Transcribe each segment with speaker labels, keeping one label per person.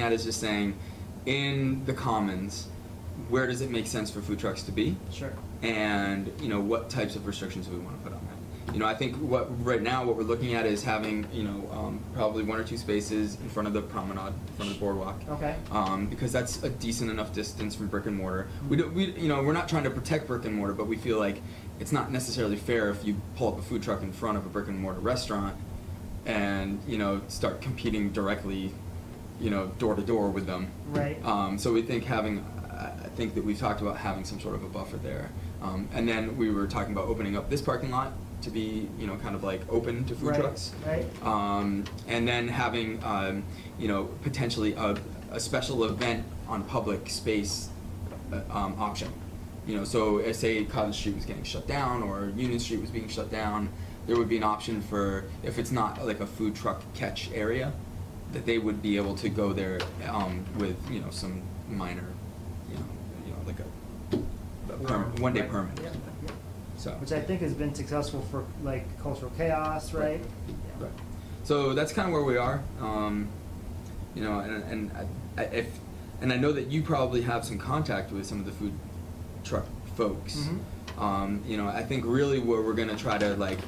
Speaker 1: at is just saying, in the commons, where does it make sense for food trucks to be?
Speaker 2: Sure.
Speaker 1: and you know what types of restrictions we want to put on that. You know, I think what right now what we're looking at is having you know um, probably one or two spaces in front of the promenade, in front of the boardwalk,
Speaker 2: Okay.
Speaker 1: um, because that's a decent enough distance from brick and mortar. We do, we you know we're not trying to protect brick and mortar, but we feel like it's not necessarily fair if you pull up a food truck in front of a brick and mortar restaurant, and you know start competing directly, you know door to door with them.
Speaker 2: Right.
Speaker 1: Um, so we think having, I I think that we've talked about having some sort of a buffer there. Um, and then we were talking about opening up this parking lot to be, you know, kind of like open to food
Speaker 2: right.
Speaker 1: trucks.
Speaker 2: Right.
Speaker 1: Um, and then having, um, you know, potentially a, a special event on public space uh, um, option. You know, so uh, say Cottage Street was getting shut down or Union Street was being shut down, there would be an option for, if it's not like a food truck catch area, that they would be able to go there um, with, you know, some minor, you know, you know like a, a Uh, perm- one day
Speaker 2: Right.
Speaker 1: permit. Uh,
Speaker 2: Yeah, yeah.
Speaker 1: So.
Speaker 2: Which I think has been successful for like cultural chaos, right?
Speaker 1: Right. Right. So that's kind of where we are. Um, you know, and, and I, I, if and I know that you probably have some contact with some of the food truck folks.
Speaker 2: Mhm.
Speaker 1: Um, you know, I think really where we're gonna try to like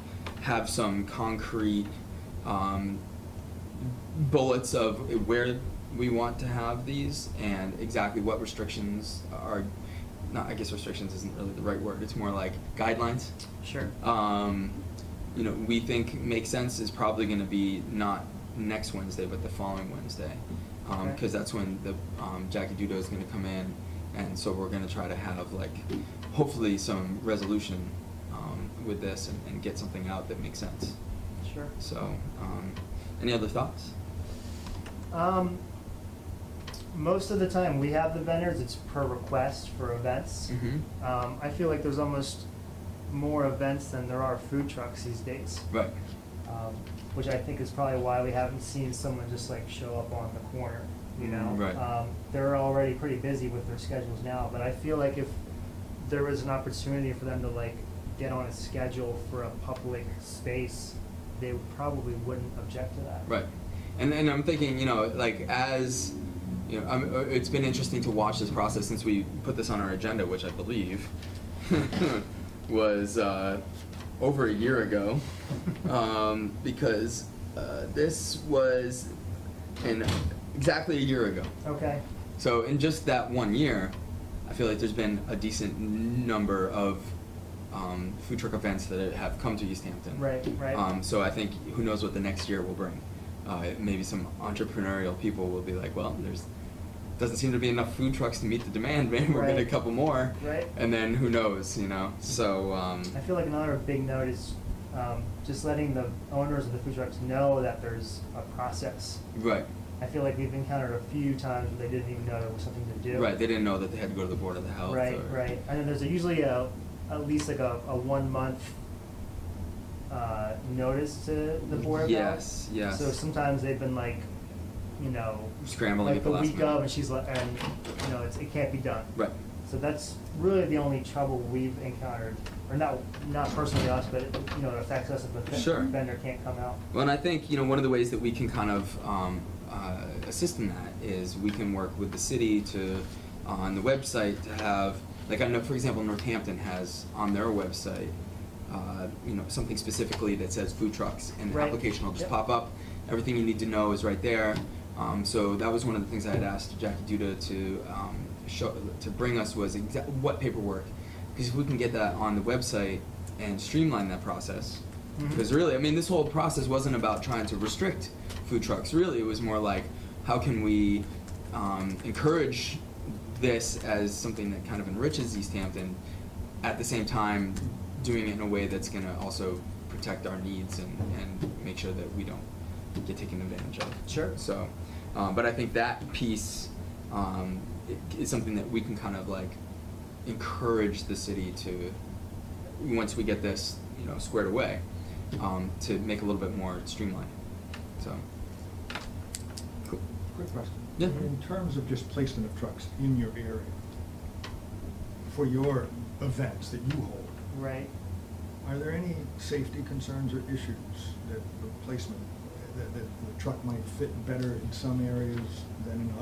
Speaker 1: have some concrete um, bullets of where we want to have these and exactly what restrictions are. Not, I guess restrictions isn't really the right word. It's more like guidelines
Speaker 2: Sure.
Speaker 1: um, you know, we think makes sense is probably going to be not next Wednesday, but the following Wednesday, because
Speaker 2: Okay.
Speaker 1: that's when the um, Jackie Dudo is going to come in, and so we're going to try to have like, hopefully, some resolution um, with this and, and get something out that makes sense.
Speaker 2: Sure.
Speaker 1: So, um, any other thoughts?
Speaker 2: Um, most of the time we have the vendors, it's per request for events.
Speaker 1: Mm-hmm.
Speaker 2: Um, I feel like there's almost more events than there are food trucks these days.
Speaker 1: Right.
Speaker 2: um, which I think is probably why we haven't seen someone just like show up on the corner, you know?
Speaker 1: Mm-hmm. Right.
Speaker 2: Um, they're already pretty busy with their schedules now, but I feel like if there was an opportunity for them to like get on a schedule for a public space, they probably wouldn't object to that.
Speaker 1: Right. And and I'm thinking, you know, like as you know, I'm, uh, it's been interesting to watch this process since we put this on our agenda, which I believe was uh, over a year ago, um, because uh, this was in exactly a year ago.
Speaker 2: Okay,
Speaker 1: So in just that one year, I feel like there's been a decent number of um, food truck events that have come to East Hampton.
Speaker 2: right, right.
Speaker 1: Um, so I think who knows what the next year will bring. Uh, maybe some entrepreneurial people will be like, well, there's doesn't seem to be enough food trucks to meet the demand. Maybe we'll get a
Speaker 2: Right.
Speaker 1: couple more,
Speaker 2: Right.
Speaker 1: and then who knows, you know? So um,
Speaker 2: I feel like another big note is um, just letting the owners of the food trucks know that there's a process.
Speaker 1: right,
Speaker 2: I feel like we've encountered a few times where they didn't even know there was something to do.
Speaker 1: right. They didn't know that they had to go to the board of the health.
Speaker 2: Right,
Speaker 1: or-
Speaker 2: right. And then there's a- usually a, at least like a, a one month, uh, notice to the board about it.
Speaker 1: Yes, yes.
Speaker 2: So sometimes they've been like, you know.
Speaker 1: Scrambling
Speaker 2: like
Speaker 1: at the last
Speaker 2: week of,
Speaker 1: minute.
Speaker 2: and she's like, and, you know, it's, it can't be done.
Speaker 1: Right.
Speaker 2: So that's really the only trouble we've encountered, or not, not personally us, but, you know, it affects us if the
Speaker 1: Sure.
Speaker 2: ven- vendor can't come out.
Speaker 1: Well, and I think you know one of the ways that we can kind of um, uh, assist in that is we can work with the city to on the website to have like I know for example Northampton has on their website uh, you know something specifically that says food trucks and the
Speaker 2: Right.
Speaker 1: application will just
Speaker 2: Yep.
Speaker 1: pop up. Everything you need to know is right there. Um, so that was one of the things I had asked Jackie Duda to um, show to bring us was exa- what paperwork because if we can get that on the website and streamline that process
Speaker 2: Mhm.
Speaker 1: because really, I mean, this whole process wasn't about trying to restrict food trucks. Really, it was more like how can we um, encourage this as something that kind of enriches East Hampton, at the same time doing it in a way that's going to also protect our needs and, and make sure that we don't get taken advantage of.
Speaker 2: Sure.
Speaker 1: So, um, but I think that piece um, i- is something that we can kind of like encourage the city to, once we get this, you know, squared away, um, to make a little bit more streamlined. So, cool.
Speaker 3: Quick question.
Speaker 1: Yeah.
Speaker 3: In terms of just placement of trucks in your area, for your events that you hold,
Speaker 2: Right.
Speaker 3: are there any safety concerns or issues that the placement, that, that the truck might fit better in some areas than in others?